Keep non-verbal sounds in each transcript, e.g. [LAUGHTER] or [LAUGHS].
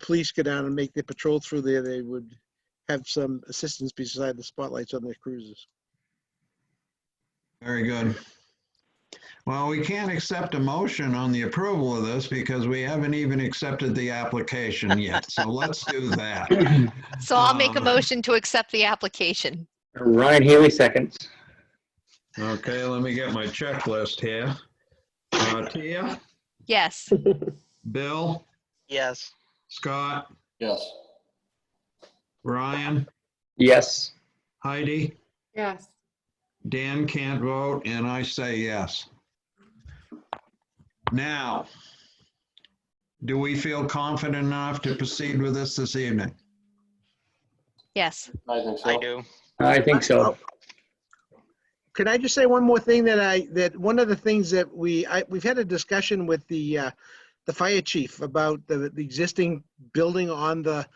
police go down and make their patrol through there, they would have some assistance beside the spotlights on their cruisers. Very good. Well, we can't accept a motion on the approval of this because we haven't even accepted the application yet. So let's do that. So I'll make a Um, motion to accept the application. Ryan Healy seconds. Okay, let me get my checklist here. Uh, Tia, Yes. Bill, Yes. Scott, Yes. Ryan, Yes. Heidi, Yes. Dan can't vote, and I say yes. Now, do we feel confident enough to proceed with this this evening? Yes. I think so. I do. I think so. Could I just say one more thing that I, that one of the things that we, I, we've had a discussion with the, uh, the fire chief about the, the existing building on the,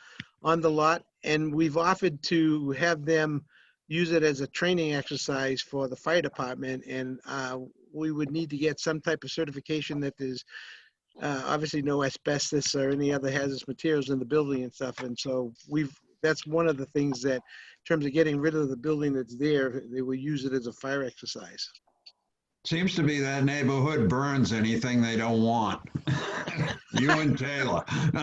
on the lot. And we've offered to have them use it as a training exercise for the fire department. And, uh, we would need to get some type of certification that there's, uh, obviously no asbestos or any other hazardous materials in the building and stuff. And so we've, that's one of the things that in terms of getting rid of the building that's there, they will use it as a fire exercise. Seems to be that neighborhood burns anything they don't want. [LAUGHS] You and Taylor. [LAUGHS]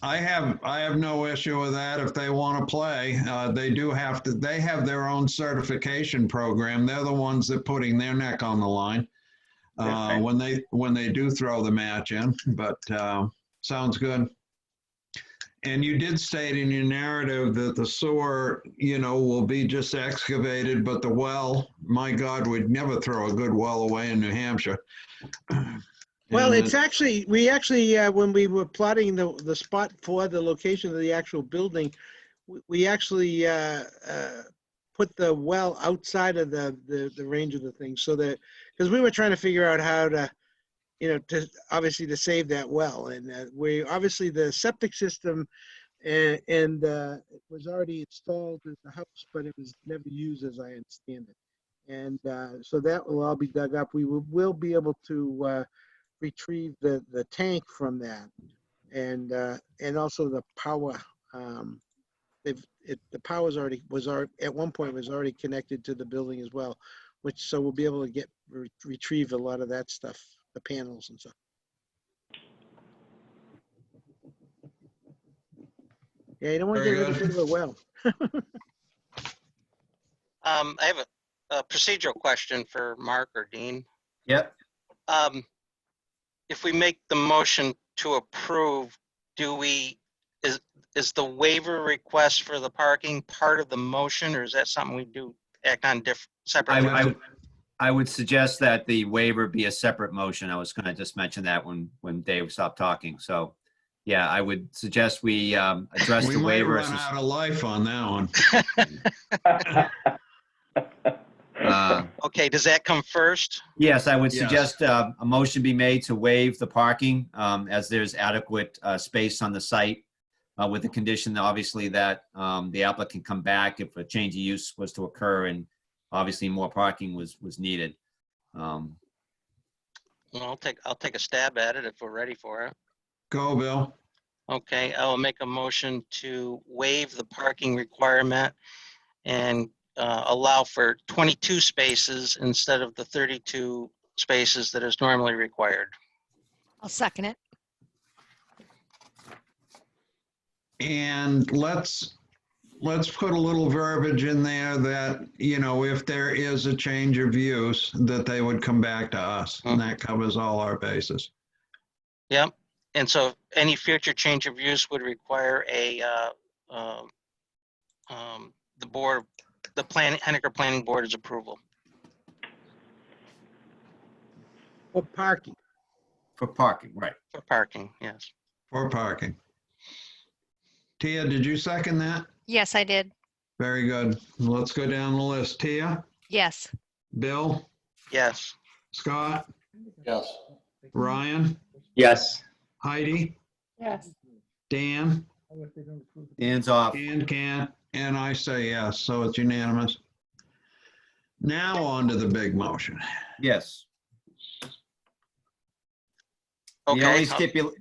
I have, I have no issue with that if they want to play. Uh, They do have to, they have their own certification program. They're the ones that putting their neck on the line uh, when they, when they do throw the match in, but uh, sounds good. And you did state in your narrative that the sewer, you know, will be just excavated, but the well, my God, we'd never throw a good well away in New Hampshire. Well, And it's actually, we actually, uh, when we were plotting the, the spot for the location of the actual building, we- we actually uh, uh, put the well outside of the, the, the range of the thing so that, because we were trying to figure out how to, you know, to, obviously to save that well. And uh, we, obviously the septic system and, and uh, it was already installed at the house, but it was never used as I understand it. And uh, so that will all be dug up. We will, will be able to uh, retrieve the, the tank from that. And, uh, and also the power, um, they've, it, the power's already, was already, at one point was already connected to the building as well, which, so we'll be able to get, re- retrieve a lot of that stuff, the panels and stuff. Yeah, you don't want to Very get rid good. of the well. Um, I have a, a procedural question for Mark or Dean. Yep. Um, if we make the motion to approve, do we, is, is the waiver request for the parking part of the motion or is that something we do act on diff, separately? I, I, I would suggest that the waiver be a separate motion. I was gonna just mention that when, when Dave stopped talking, so. Yeah, I would suggest we, um, address We the might waiver. run as a- out of life on that one. uh, Okay, does that come first? Yes, I would Yes. suggest, uh, a motion be made to waive the parking, um, as there's adequate, uh, space on the site. Uh, with the condition, obviously, that, um, the applicant come back if a change of use was to occur and obviously more parking was, was needed. Um, Well, I'll take, I'll take a stab at it if we're ready for it. Go, Bill. Okay, I will make a motion to waive the parking requirement and uh, allow for 22 spaces instead of the 32 spaces that is normally required. I'll second it. And let's, let's put a little verbiage in there that, you know, if there is a change of use, that they would come back to us. And that covers all our bases. Yep, and so any future change of use would require a, uh, um, um, the board, the plan, Hennecker Planning Board's approval. Or parking. for parking, right. For parking, yes. For parking. Tia, did you second that? Yes, I did. Very good. Let's go down the list. Tia, Yes. Bill, Yes, Scott, Yes. Ryan, Yes. Heidi, Yes. Dan, Hands off. and Ken, and I say yes, so it's unanimous. Now on to the big motion. Yes. The okay. only I'll- stipula-